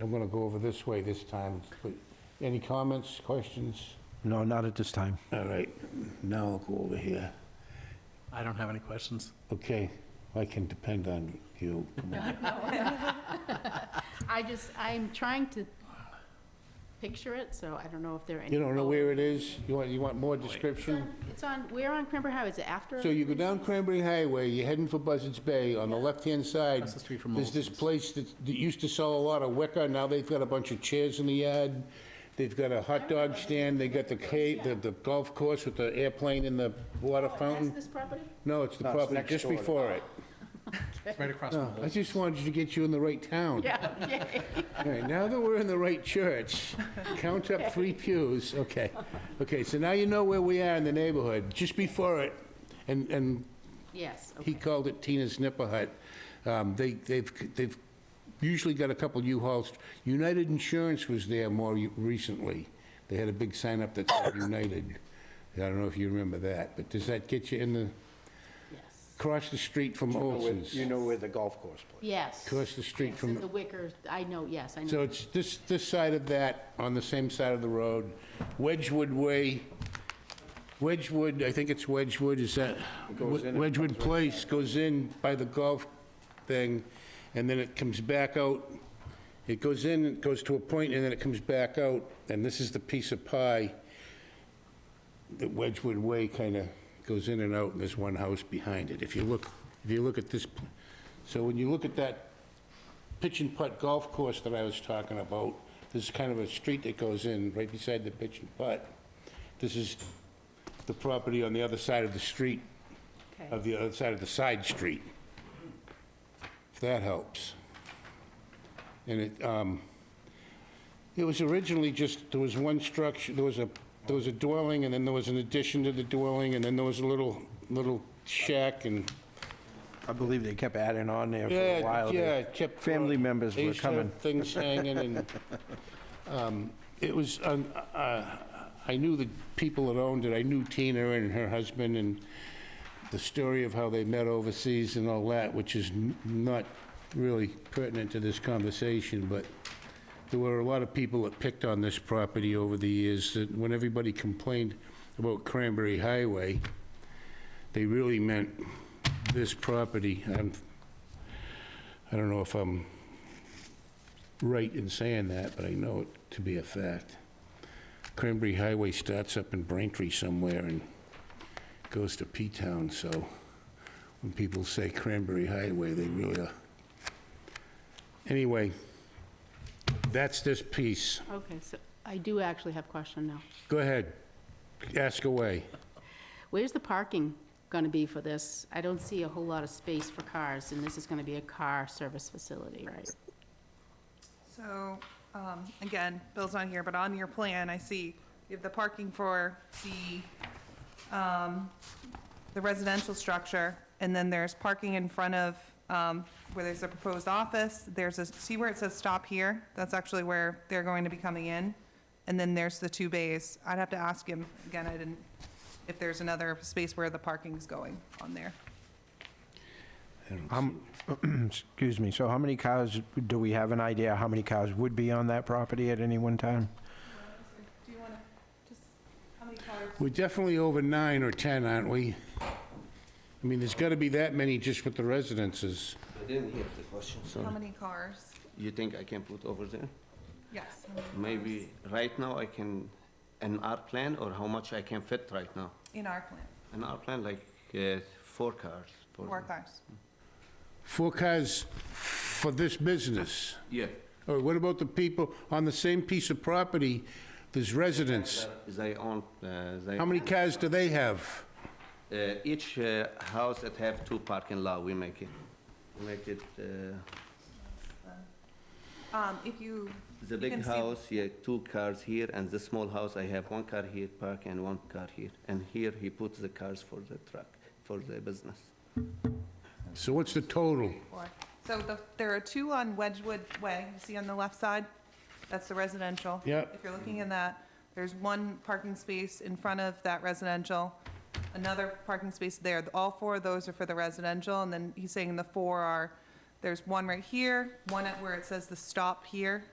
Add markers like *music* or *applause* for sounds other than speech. I'm gonna go over this way this time. But Any comments, questions? No, not at this time. All right, now I'll go over here. I don't have any questions. Okay, I can depend on you. Come on. I just, I'm trying to picture it, so I don't know if there are any. You don't know where photos. it is? You want, you want more description? It's on, we're on Cranberry Highway, is it after? So you go down Cranberry Highway, you're heading for Buzzards Bay, on the left-hand side. That's the street from There's this Molson's. place that, that used to sell a lot of wicker, now they've got a bunch of chairs in the yard. They've got a hot dog stand, they got the cave, the, the golf course with the airplane and the water Past fountain. this property? No, it's the property just before it. It's right across from I Whole. just wanted to get you in the right town. Yeah, okay. All right, now that we're in the right church, count up three pews, okay. Okay, so now you know where we are in the neighborhood, just before it, and, and Yes, he okay. called it Tina's Nipper Hut. Um, They, they've, they've usually got a couple U-Hauls. United Insurance was there more u- recently. They had a big sign up that said United. I don't know if you remember that, but does that get you in the, Yes, across the street from Olson's? You know where the golf course plays. yes. Across the street Yes, in from, the Wicker, I know, yes, I so know. it's this, this side of that, on the same side of the road. Wedgewood Way, Wedgewood, I think it's Wedgewood, is that? Wedgewood Place goes in by the golf thing, and then it comes back out. It goes in, it goes to a point, and then it comes back out, and this is the piece of pie that Wedgewood Way kind of goes in and out, and there's one house behind it. If you look, if you look at this, so when you look at that pitch and putt golf course that I was talking about, there's kind of a street that goes in right beside the pitch and putt. This is the property on the other side of the street, Okay. of the other side of the side street. If that helps. And it, um, it was originally just, there was one structure, there was a, there was a dwelling, and then there was an addition to the dwelling, and then there was a little, little shack, and I believe they kept adding on there for yeah, a while. yeah, there. it kept. Family throwing- members they were used to have coming. Things hanging and, um, it was, um, uh, I knew the people that owned it. I knew Tina and her husband and the story of how they met overseas and all that, which is n- not really pertinent to this conversation, but there were a lot of people that picked on this property over the years. That When everybody complained about Cranberry Highway, they really meant this property. I'm I don't know if I'm right in saying that, but I know it to be a fact. Cranberry Highway starts up in Braintree somewhere and goes to P-Town, so when people say Cranberry Highway, they really are. Anyway, that's this piece. Okay, so I do actually have a question now. Go ahead, ask away. Where's the parking going to be for this? I don't see a whole lot of space for cars, and this is going to be a car service facility, right? So, um, again, Bill's not here, but on your plan, I see you have the parking for the, um, the residential structure, and then there's parking in front of, um, where there's a proposed office, there's a, see where it says stop here? That's actually where they're going to be coming in, and then there's the two bays. I'd have to ask him, again, I didn't, if there's another space where the parking's going on there. Um, *clears throat* Excuse me, so how many cars, do we have an idea how many cars would be on that property at any one time? Do you wanna, just, how many cars? We're definitely over nine or 10, aren't we? I mean, there's got to be that many just with the residences. I didn't hear the question, How many cars? You think I can put over there? Yes. how many cars? Maybe right now I can, an R plan or how much I can fit right now? In our plan, An R plan like uh, four cars. for- four cars. Four cars for this business? Yeah. Or what about the people on the same piece of property, there's residents? They own, uh, they. How many cars do they have? Uh, Each uh, house that have two parking lot, we make it, we make it, uh, Um, if you. the you big can see- house, yeah, two cars here, and the small house, I have one car here park and one car here. And here he puts the cars for the truck, for the business. So what's the total? Or- So the, there are two on Wedgewood Way, you see on the left side? That's the residential. Yep. If you're looking in that, there's one parking space in front of that residential, another parking space there. All four of those are for the residential, and then he's saying the four are, there's one right here, one at where it says the stop here,